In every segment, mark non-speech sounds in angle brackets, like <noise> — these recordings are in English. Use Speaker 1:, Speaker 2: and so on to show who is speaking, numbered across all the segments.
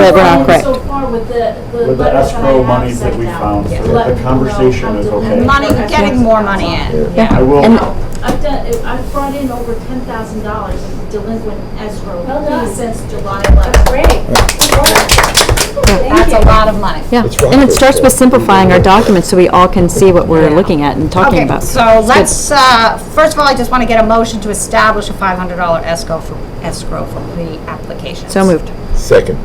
Speaker 1: at Brown Creek.
Speaker 2: So far with the, the.
Speaker 3: Um, With the
Speaker 2: letters that I
Speaker 3: escrow
Speaker 2: have
Speaker 3: monies that
Speaker 2: sent
Speaker 3: we
Speaker 2: out.
Speaker 3: found, so
Speaker 2: Yeah.
Speaker 3: the
Speaker 2: Let me know
Speaker 3: conversation
Speaker 2: how
Speaker 3: is
Speaker 2: to-
Speaker 3: okay.
Speaker 4: Money,
Speaker 2: Okay.
Speaker 4: getting more money in,
Speaker 1: Yeah.
Speaker 3: I
Speaker 4: yeah.
Speaker 3: will,
Speaker 1: And-
Speaker 2: I've done, I've brought in over ten thousand dollars in delinquent escrow
Speaker 5: Well done.
Speaker 2: fees since July eleventh.
Speaker 5: Great.
Speaker 4: That's a lot of money.
Speaker 1: Yeah,
Speaker 6: It's rock
Speaker 1: and it
Speaker 6: paper.
Speaker 1: starts with simplifying our documents so we all can see what we're looking at and talking
Speaker 4: Okay,
Speaker 1: about.
Speaker 4: so
Speaker 1: It's good.
Speaker 4: let's, uh, first of all, I just want to get a motion to establish a $500 escrow for, escrow for pre-applications.
Speaker 1: So moved.
Speaker 6: Second.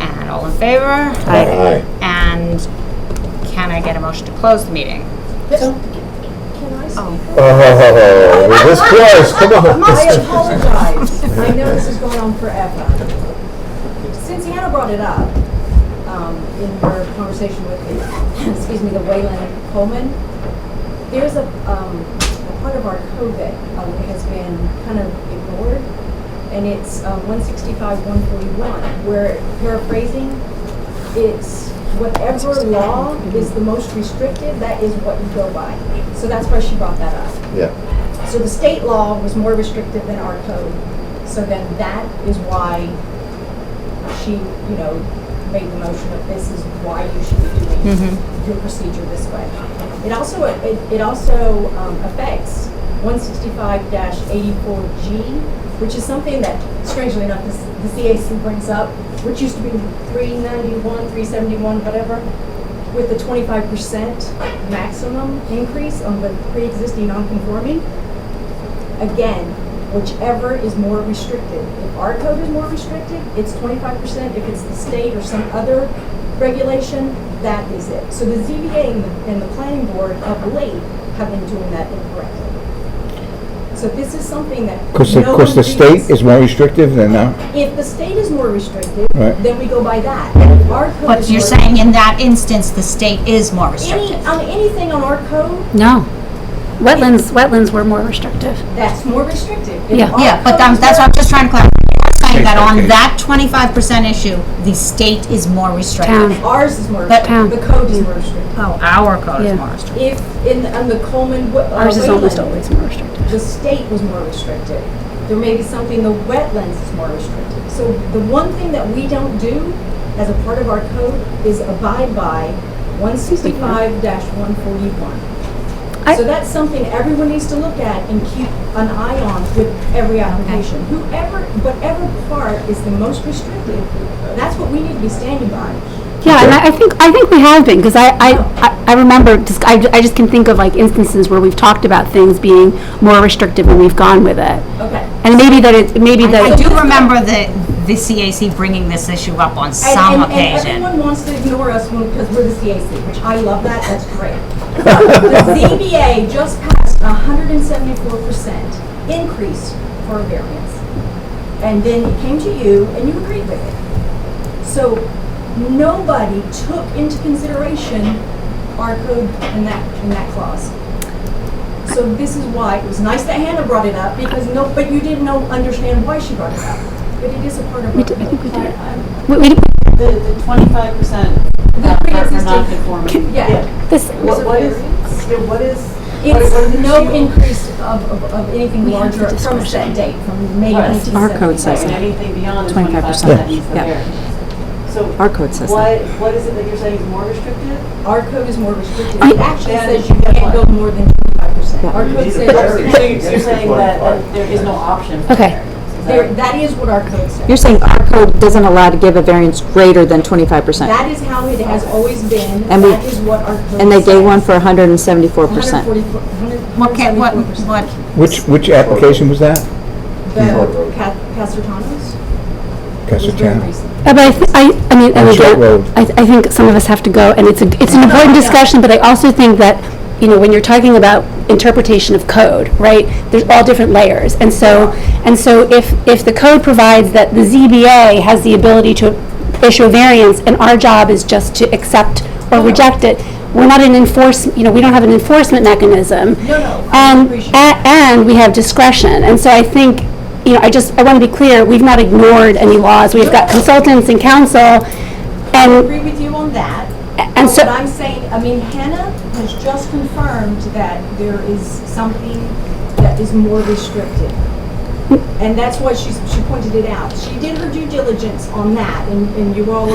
Speaker 4: And all in favor?
Speaker 6: Aye.
Speaker 4: And can I get a motion to close the meeting?
Speaker 5: Can I speak?
Speaker 6: Oh, <laughs> we're this close, come on.
Speaker 5: I apologize. I know this has gone on forever. Since Hannah brought it up, um, in her conversation with the, excuse me, the Wayland Coleman, there's a, um, a part of our code that um, has been kind of ignored, and it's, um, one sixty-five, one forty-one, where paraphrasing, it's whatever law is the most restrictive, that is what you go by. So that's why she brought that up.
Speaker 6: Yeah,
Speaker 5: So the state law was more restrictive than our code. So then that is why she, you know, made the motion of this is why you should be doing your procedure this way. It also, it it also um, affects 165-84G, which is something that strangely enough, this- the CAC brings up, which used to be 391, 371, whatever with the 25% maximum increase on the pre-existing non-conforming, again, whichever is more restricted. If our code is more restricted, it's 25%. If it's the state or some other regulation, that is it. So the ZBA and the, and the planning board of late have been doing that incorrectly. So this is something that
Speaker 7: Because,
Speaker 5: no
Speaker 7: because the
Speaker 5: one
Speaker 7: state
Speaker 5: reads.
Speaker 7: is more restrictive than now.
Speaker 5: If the state is more restricted,
Speaker 7: Right.
Speaker 5: then we go by that. And if our code
Speaker 4: But
Speaker 5: is
Speaker 4: you're
Speaker 5: more-
Speaker 4: saying in that instance, the state is more
Speaker 5: Any,
Speaker 4: restrictive.
Speaker 5: on anything on our code,
Speaker 1: No.
Speaker 8: Wetlands, wetlands were more restrictive.
Speaker 5: That's more restrictive.
Speaker 8: Yeah.
Speaker 4: Yeah, but that- that's what I'm just trying to clarify. I'm saying that on that 25% issue, the state is more restrictive.
Speaker 8: Town.
Speaker 5: Ours is more,
Speaker 4: But-
Speaker 5: restrictive. the code
Speaker 8: Mm.
Speaker 5: is more restricted.
Speaker 4: Oh, our code
Speaker 8: Yeah.
Speaker 4: is more restrictive.
Speaker 5: If, in, on the Coleman, what, uh,
Speaker 8: Ours is almost
Speaker 5: Wayland,
Speaker 8: always more restrictive.
Speaker 5: The state was more restrictive. There may be something, the wetlands is more restrictive. So the one thing that we don't do as a part of our code is abide by one sixty-five one forty-one.
Speaker 1: I-
Speaker 5: So that's something everyone needs to look at and keep an eye on with every application. Whoever, whatever part is the most restrictive, that's what we need to be standing by.
Speaker 8: Yeah, and I I think, I think we have been, because I, I, I- I remember, just- I, ju- I just can think of like instances where we've talked about things being more restrictive and we've gone with it.
Speaker 5: Okay.
Speaker 8: And maybe that it, maybe
Speaker 4: I
Speaker 8: that,
Speaker 4: do remember the, the CAC bringing this issue up on some
Speaker 5: and, and
Speaker 4: occasion.
Speaker 5: everyone wants to ignore us because we're the CAC, which I love that. That's great. the ZBA just passed a 174% increase for a variance. And then it came to you and you agreed with it. So nobody took into consideration our code in that, in that clause. So this is why, it was nice that Hannah brought it up because no, but you didn't know, understand why she brought it up. But it is a part of our code.
Speaker 8: we, we,
Speaker 9: The, the twenty-five percent uh, for non-conforming.
Speaker 5: Yeah.
Speaker 8: this,
Speaker 9: What, what is, yeah, what is? what- what is
Speaker 5: It's
Speaker 9: it
Speaker 5: no
Speaker 9: you-
Speaker 5: increase of, of, of anything
Speaker 8: We have the
Speaker 5: larger from
Speaker 8: discretion.
Speaker 5: that date, from May
Speaker 9: Right.
Speaker 5: 1975.
Speaker 1: Our code says
Speaker 9: And anything beyond
Speaker 1: 25%,
Speaker 9: the twenty-five percent that needs the
Speaker 1: yeah.
Speaker 9: variance. So.
Speaker 1: Our code says that.
Speaker 9: What, what is it that you're saying is more restrictive?
Speaker 5: Our code is more restrictive. It actually
Speaker 9: Yeah.
Speaker 5: says you can't go more than 25%. Our code
Speaker 9: So
Speaker 5: says,
Speaker 9: you're saying, you're saying that, that there is no option for
Speaker 1: Okay.
Speaker 9: variance. Is that-
Speaker 5: there, that is what our code says.
Speaker 1: You're saying our code doesn't allow to give a variance greater than 25%?
Speaker 5: That is how it has always been.
Speaker 1: And we-
Speaker 5: That is what our code says.
Speaker 1: And they gave one for 174%.
Speaker 5: 144
Speaker 4: What, ca- what,
Speaker 5: 174%.
Speaker 4: what,
Speaker 7: Which, which application was that?
Speaker 5: The Ca- Casertano's? It was very
Speaker 7: Castletown.
Speaker 5: recent.
Speaker 8: Uh, But I, thi- I, I mean, and
Speaker 7: On Short Road.
Speaker 8: again, I, I think some of us have to go, and it's, a it's an important discussion, but I also think that, you know, when you're talking about interpretation of code, right, there's all different layers, and so, and so if, if the code provides that the ZBA has the ability to issue a variance, and our job is just to accept or reject it, we're not an enforce, you know, we don't have an enforcement mechanism.
Speaker 5: No, no, I
Speaker 8: And,
Speaker 5: appreciate
Speaker 8: Um, a- and we have discretion, and so I think, you know, I just, I want to be clear, we've not ignored any laws, we've got consultants and counsel,
Speaker 5: I
Speaker 8: and,
Speaker 5: agree with you on that.
Speaker 8: and so,
Speaker 5: But I'm saying, I mean, Hannah has just confirmed that there is something that is more restricted. And that's what she's, she pointed it out. She did her due diligence on that, and, and you were all like,